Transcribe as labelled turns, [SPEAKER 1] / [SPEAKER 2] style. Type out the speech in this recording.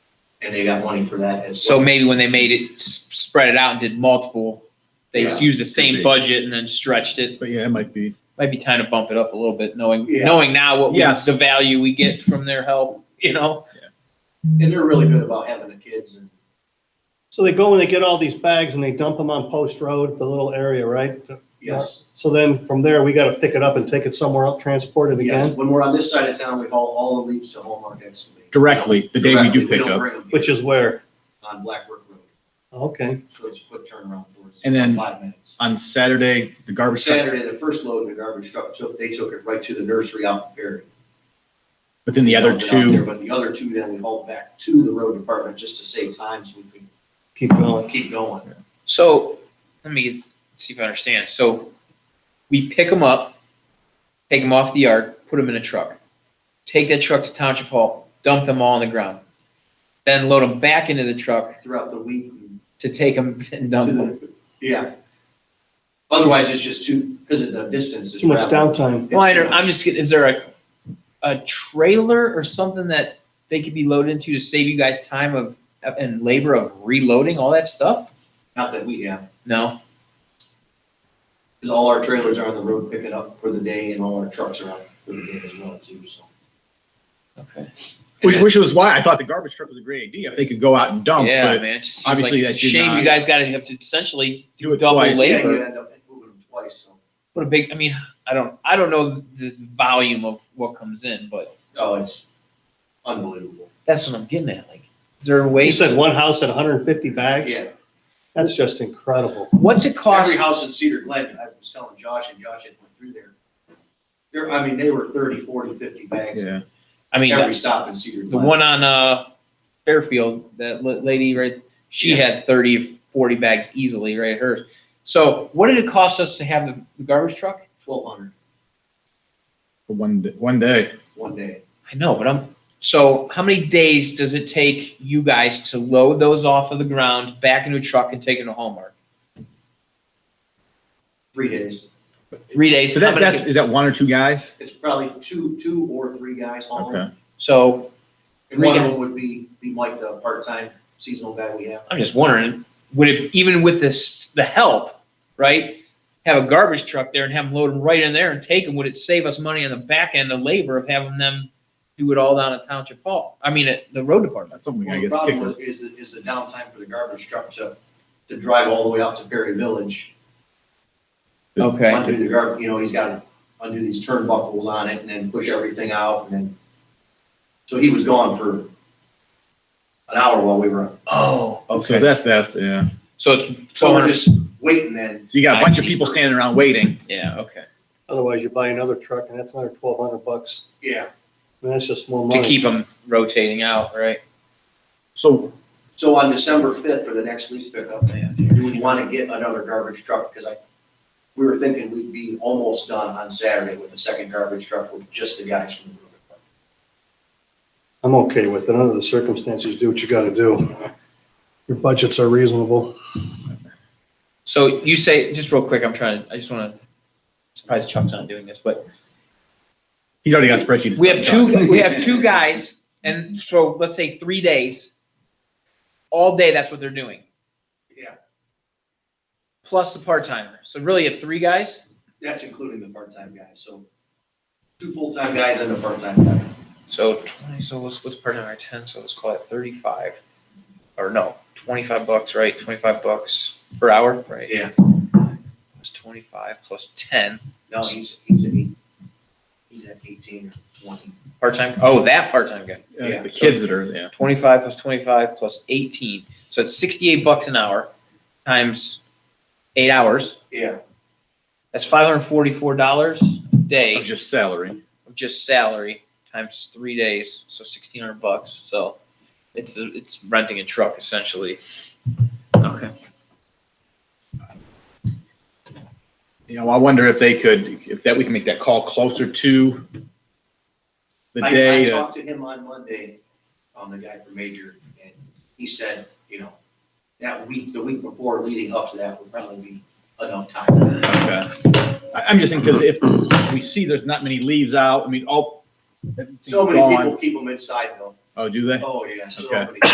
[SPEAKER 1] and they got money for that as
[SPEAKER 2] So
[SPEAKER 1] well.
[SPEAKER 2] maybe when they made it, s- spread it out and did multiple, they
[SPEAKER 1] Yeah.
[SPEAKER 2] used the
[SPEAKER 3] Could
[SPEAKER 2] same
[SPEAKER 3] be.
[SPEAKER 2] budget and then stretched it.
[SPEAKER 3] But yeah, it might be.
[SPEAKER 2] Might be time to bump it up a little bit, knowing,
[SPEAKER 1] Yeah.
[SPEAKER 2] knowing now what, we-
[SPEAKER 3] Yes.
[SPEAKER 2] the value we get from their help, you know?
[SPEAKER 1] And they're really good about having the kids and
[SPEAKER 4] So they go and they get all these bags and they dump them on Post Road, the little area, right?
[SPEAKER 1] yes.
[SPEAKER 4] So then from there, we gotta pick it up and take it somewhere else, transport it
[SPEAKER 1] Yes,
[SPEAKER 4] again,
[SPEAKER 1] when we're on this side of town, we haul all the leaves to Hallmark Excavating.
[SPEAKER 3] Directly, the day we
[SPEAKER 1] Directly,
[SPEAKER 3] do pick
[SPEAKER 1] don't
[SPEAKER 3] up.
[SPEAKER 1] bring them here
[SPEAKER 4] which is where,
[SPEAKER 1] On Blackbrook Road,
[SPEAKER 4] okay,
[SPEAKER 1] so it's a quick turnaround for us.
[SPEAKER 3] And then-
[SPEAKER 1] Five minutes.
[SPEAKER 3] On Saturday, the garbage truck,
[SPEAKER 1] Saturday, the first load the garbage truck took, they took it right to the nursery out in Perry.
[SPEAKER 3] but then the other
[SPEAKER 1] Dumped it out there,
[SPEAKER 3] two,
[SPEAKER 1] But the other two then we hauled back to the road department just to save time so we
[SPEAKER 4] keep going.
[SPEAKER 1] could keep going.
[SPEAKER 2] So, let me see if I understand. So, we pick them up, take them off the yard, put them in a truck. Take that truck to Township Hall, dump them all on the ground. Then load them back into the truck
[SPEAKER 1] Throughout the week, we
[SPEAKER 2] to take them and dump them.
[SPEAKER 1] Yeah. Otherwise, it's just too, because of the distance. it's
[SPEAKER 4] Too much
[SPEAKER 1] traveled.
[SPEAKER 4] downtime.
[SPEAKER 2] Well, I don't, I'm just, get- is there a, a trailer or something that they could be loaded into to save you guys time of, and labor of reloading all that stuff?
[SPEAKER 1] Not that we have,
[SPEAKER 2] No?
[SPEAKER 1] because all our trailers are on the road picking up for the day and all our trucks are out for the day as well too, so.
[SPEAKER 2] Okay.
[SPEAKER 3] which, which was why I thought the garbage truck was a great idea, if they could go out and dump,
[SPEAKER 2] Yeah,
[SPEAKER 3] but
[SPEAKER 2] man, it just seems like,
[SPEAKER 3] obviously
[SPEAKER 2] it's a
[SPEAKER 3] that did
[SPEAKER 2] shame you
[SPEAKER 3] not-
[SPEAKER 2] guys gotta have to essentially
[SPEAKER 3] do it
[SPEAKER 2] double
[SPEAKER 3] twice.
[SPEAKER 2] labor.
[SPEAKER 1] Yeah, you end up moving them twice, so.
[SPEAKER 2] put a big, I mean, I don't, I don't know the volume of what comes in, but
[SPEAKER 1] Oh, it's unbelievable.
[SPEAKER 2] that's what I'm getting at, like, is there a way?
[SPEAKER 4] You said one house had hundred and fifty bags?
[SPEAKER 1] Yeah,
[SPEAKER 4] That's just incredible.
[SPEAKER 2] What's it cost?
[SPEAKER 1] every house in Cedar Glen, I was telling Josh and Josh had went through there. There, I mean, they were 30, 40, 50 bags,
[SPEAKER 3] Yeah,
[SPEAKER 2] I mean,
[SPEAKER 1] every stop in Cedar
[SPEAKER 2] The
[SPEAKER 1] Glen.
[SPEAKER 2] one on, uh, Fairfield, that la- lady, right, she
[SPEAKER 1] Yeah.
[SPEAKER 2] had 30, 40 bags easily, right, hers. So what did it cost us to have the- the garbage truck?
[SPEAKER 1] Twelve hundred,
[SPEAKER 3] for one, d- one day.
[SPEAKER 1] one day.
[SPEAKER 2] I know, but I'm, so how many days does it take you guys to load those off of the ground, back into a truck and take it to Hallmark?
[SPEAKER 1] three days.
[SPEAKER 2] Three days?
[SPEAKER 3] So
[SPEAKER 2] how
[SPEAKER 3] that,
[SPEAKER 2] many-
[SPEAKER 3] that's, is that one or two guys?
[SPEAKER 1] It's probably two, two or three guys hauling.
[SPEAKER 3] Okay.
[SPEAKER 2] So
[SPEAKER 1] And one of them would be, be Mike, the part-time seasonal guy we have.
[SPEAKER 2] I'm just wondering, would it, even with this, the help, right? Have a garbage truck there and have them load them right in there and take them, would it save us money on the back end of labor of having them do it all down at Township Hall? I mean, at the road department.
[SPEAKER 3] That's something
[SPEAKER 1] Well,
[SPEAKER 3] I
[SPEAKER 1] the
[SPEAKER 3] guess
[SPEAKER 1] problem
[SPEAKER 3] kicked.
[SPEAKER 1] was- is, the- is the downtime for the garbage truck to, to drive all the way out to Perry Village.
[SPEAKER 2] Okay,
[SPEAKER 1] Undo the gar, you know, he's gotta undo these turnbuckles on it and then push everything out and then. So he was gone for an hour while we were,
[SPEAKER 2] oh,
[SPEAKER 3] So
[SPEAKER 2] okay.
[SPEAKER 3] that's, that's, yeah.
[SPEAKER 2] So it's
[SPEAKER 1] so we're
[SPEAKER 2] 400
[SPEAKER 1] just waiting then.
[SPEAKER 3] You got
[SPEAKER 2] I
[SPEAKER 3] a bunch of
[SPEAKER 2] see.
[SPEAKER 3] people standing around waiting.
[SPEAKER 2] yeah, okay.
[SPEAKER 4] Otherwise, you buy another truck and that's another twelve hundred bucks.
[SPEAKER 1] Yeah,
[SPEAKER 4] And that's just more
[SPEAKER 2] To
[SPEAKER 4] money.
[SPEAKER 2] keep them rotating out, right?
[SPEAKER 3] So,
[SPEAKER 1] so on December fifth for the next lease pickup, do we wanna get another garbage truck? Cause I, we were thinking we'd be almost done on Saturday with the second garbage truck with just the guys from the road department.
[SPEAKER 4] I'm okay with it. Under the circumstances, do what you gotta do. Your budgets are reasonable.
[SPEAKER 2] So you say, just real quick, I'm trying, I just wanna, surprised Chuck's not doing this, but
[SPEAKER 3] he's already got spreadsheets.
[SPEAKER 2] We have two, we have two guys, and so let's say three days, all day, that's what they're doing,
[SPEAKER 1] Yeah,
[SPEAKER 2] plus the part-timer. So really, you have three guys?
[SPEAKER 1] that's including the part-time guys, so two full-time guys and a part-time guy.
[SPEAKER 2] So twenty, so what's, what's part-timer, ten, so let's call it thirty-five, or no, twenty-five bucks, right, twenty-five bucks per hour, right?
[SPEAKER 1] Yeah.
[SPEAKER 2] It's twenty-five plus ten,
[SPEAKER 1] No, he's, he's at eight, he's at eighteen or twenty.
[SPEAKER 2] part-time, oh, that part-time guy,
[SPEAKER 3] Uh,
[SPEAKER 1] Yeah.
[SPEAKER 3] The kids that are, yeah.
[SPEAKER 2] twenty-five plus twenty-five plus eighteen, so it's sixty-eight bucks an hour, times eight hours.
[SPEAKER 1] Yeah,
[SPEAKER 2] That's five hundred and forty-four dollars a
[SPEAKER 3] Of
[SPEAKER 2] day
[SPEAKER 3] just salary.
[SPEAKER 2] of just salary times three days, so sixteen hundred bucks. So it's, a- it's renting a truck essentially. Okay.
[SPEAKER 3] You know, I wonder if they could, if that, we can make that call closer to the
[SPEAKER 1] I, I
[SPEAKER 3] day. uh,
[SPEAKER 1] talked to him on Monday, um, the guy from Major, and he said, you know, that week, the week before leading up to that would probably be enough time.
[SPEAKER 3] okay. I- I'm just saying, because if we see there's not many leaves out, I mean, all.
[SPEAKER 1] So many
[SPEAKER 3] gone.
[SPEAKER 1] people keep them inside though.
[SPEAKER 3] Oh, do they?
[SPEAKER 1] Oh, yeah, so
[SPEAKER 3] Okay.
[SPEAKER 1] many.